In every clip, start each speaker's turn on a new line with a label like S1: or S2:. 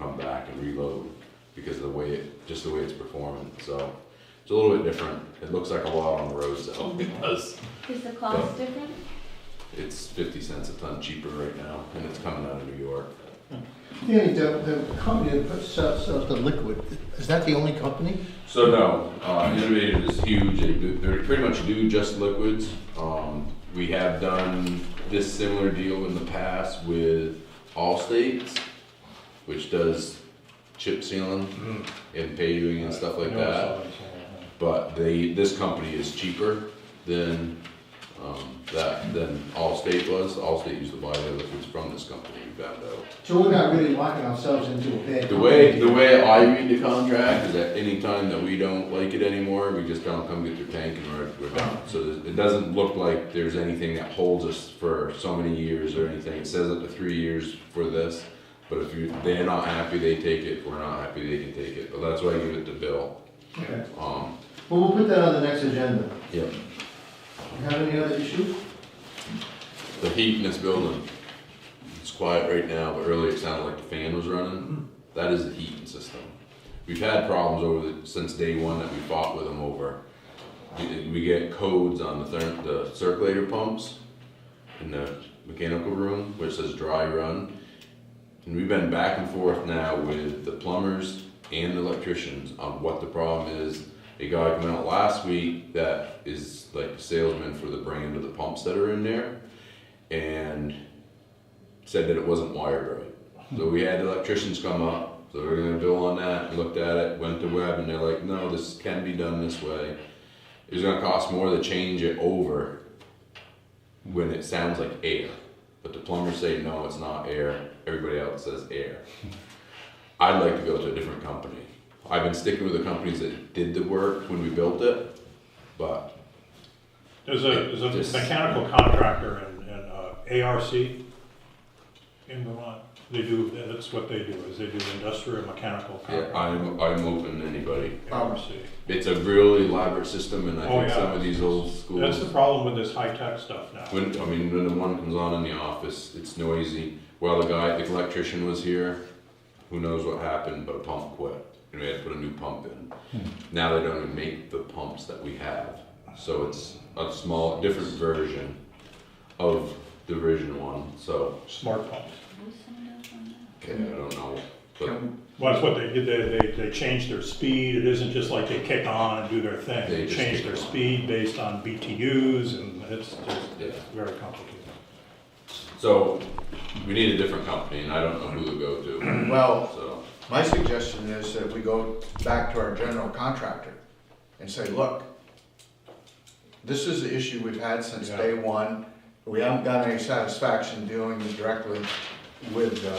S1: and reload because of the way it, just the way it's performing, so. It's a little bit different. It looks like a lot on the roads though, it does.
S2: Is the cost different?
S1: It's fifty cents a ton cheaper right now and it's coming out of New York.
S3: Danny, the, the company that puts, sells, sells the liquid, is that the only company?
S1: So no, uh, Innovative is huge. They do, they pretty much do just liquids. Um, we have done this similar deal in the past with All States, which does chip sealing and paving and stuff like that. But they, this company is cheaper than um, that than Allstate was. Allstate used to buy their liquids from this company. We found out.
S3: So we're not really locking ourselves into a bad.
S1: The way,
S3: company.
S1: the way I read the contract is that any time that we don't like it anymore, we just tell them, come get your tank and we're, we're done. So there's- it doesn't look like there's anything that holds us for so many years or anything. It says up to three years for this. But if you, they're not happy, they take it. If we're not happy, they can take it. But that's why I give it to Bill.
S3: Okay.
S1: Um,
S3: Well, we'll put that on the next agenda.
S1: yep,
S3: You have any other issues?
S1: the heat in this building, it's quiet right now, but earlier it sounded like the fan was running. That is the heating system. We've had problems over the, since day one that we fought with them over. We we get codes on the therm, the circulator pumps in the mechanical room, which says dry run. And we've been back and forth now with the plumbers and the electricians on what the problem is. A guy came out last week that is like a salesman for the brand of the pumps that are in there and said that it wasn't wired right. So we had the electricians come up, so we are gonna bill on that, We looked at it, went to web, and they're like, no, this can be done this way. It was gonna cost more to change it over when it sounds like air. But the plumbers say, no, it's not air, everybody else says air. I'd like to go to a different company. I've been sticking with the companies that did the work when we built it, but
S4: There's a, there's
S1: Just-
S4: a mechanical contractor in, in uh, ARC in Vermont. They do, that's what they do, is they do industrial mechanical
S1: yeah, I'm,
S4: contracting.
S1: I'm open to anybody.
S4: ARC.
S1: It's a really elaborate system, and I
S4: Oh,
S1: think
S4: yeah.
S1: some of these old
S5: Um,
S4: That's the
S1: schools.
S4: problem with this high-tech stuff now.
S1: When, I mean, when the one comes on in the office, it's noisy. While the guy, the electrician was here, who knows what happened, but a pump quit, and we had to put a new pump in.
S4: Hmm.
S1: Now they don't even make the pumps that we have, so it's a small, different version of the version one, so,
S4: Smart pumps.
S1: okay, I don't know. But
S4: Well, that's what they did, they, they, they changed their speed, it isn't just like they kick on and do their thing.
S1: They
S4: They
S1: just
S4: change
S1: kick
S4: their
S1: on.
S4: speed based on BTUs and it's just,
S1: Yeah.
S4: it's very complicated.
S1: So, we need a different company, and I don't know who to go to,
S5: Well,
S1: so,
S5: my suggestion is that we go back to our general contractor and say, look, this is the issue we've had since
S4: Yeah.
S5: day one. We haven't got any satisfaction dealing directly with the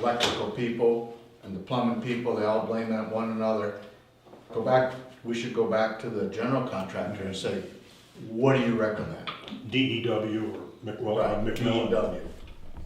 S5: electrical people and the plumbing people. They all blame that one another. Go back, we should go back to the general contractor and say, what do you recommend?
S4: DEW E or McWell,
S5: Right, E
S4: McMillan.
S5: DEW.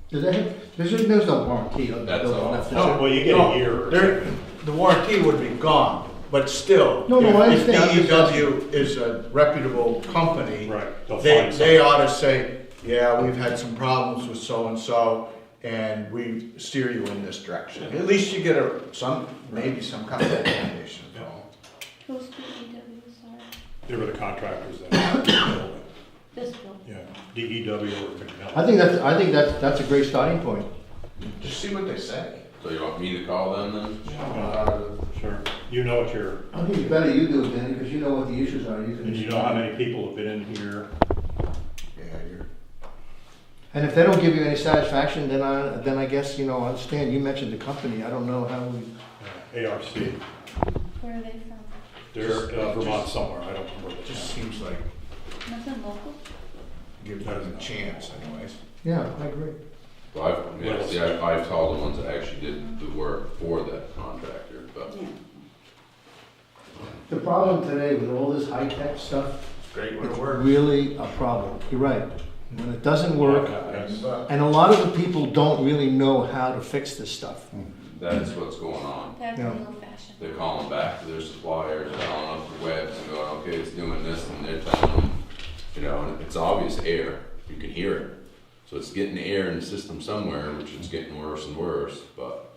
S3: Does that, there's, there's no warranty on the
S1: That's all.
S3: building. that's
S1: No,
S3: all.
S4: Well, you get
S5: No,
S4: a year or
S5: there-
S4: something.
S5: The warranty would be gone, but still.
S3: No, no, I
S5: if-
S3: understand.
S5: If DEW is a reputable company.
S4: Right, they'll
S5: They,
S4: find
S5: they
S4: something.
S5: ought to say, yeah, we've had some problems with so-and-so, and we steer you in this direction. At least you get a, some, maybe some kind of recommendation.
S2: Who's DEW, sorry?
S4: They were the contractors that.
S2: This bill.
S4: Yeah, DEW or
S3: I
S4: McMillan.
S3: think that's, I think that's, that's a great starting point.
S5: Just see what they say.
S1: so you want me to call them then?
S5: Uh,
S4: Sure, you know what you're,
S3: I think it's better you do it, Danny, because you know what the issues are, you can.
S4: and you know how many people have been in here.
S5: Yeah, you're,
S3: And if they don't give you any satisfaction, then I, then I guess, you know, I understand, you mentioned the company, I don't know how we.
S4: uh, ARC,
S2: Where are they from?
S4: they're uh, Vermont somewhere, I don't remember.
S5: it
S4: the
S5: just
S4: town.
S5: seems like
S2: Nothing local?
S5: give them a chance anyways.
S3: Yeah, I agree.
S1: Well, I've, yeah, see, I've, I've called the ones that actually did the work for that contractor, but.
S3: The problem today with all this high-tech stuff,
S5: Great
S3: it's really a problem, you're right. When it doesn't work,
S4: That's-
S3: and a lot of the people don't really know how to fix this stuff.
S1: That's what's going on.
S2: That's
S3: No.
S2: old fashioned.
S1: They're calling back to their suppliers, calling up the webs and going, okay, it's doing this, and they're telling them, you know, and it's obvious air, you can hear it. So it's getting air in the system somewhere, which is getting worse and worse, but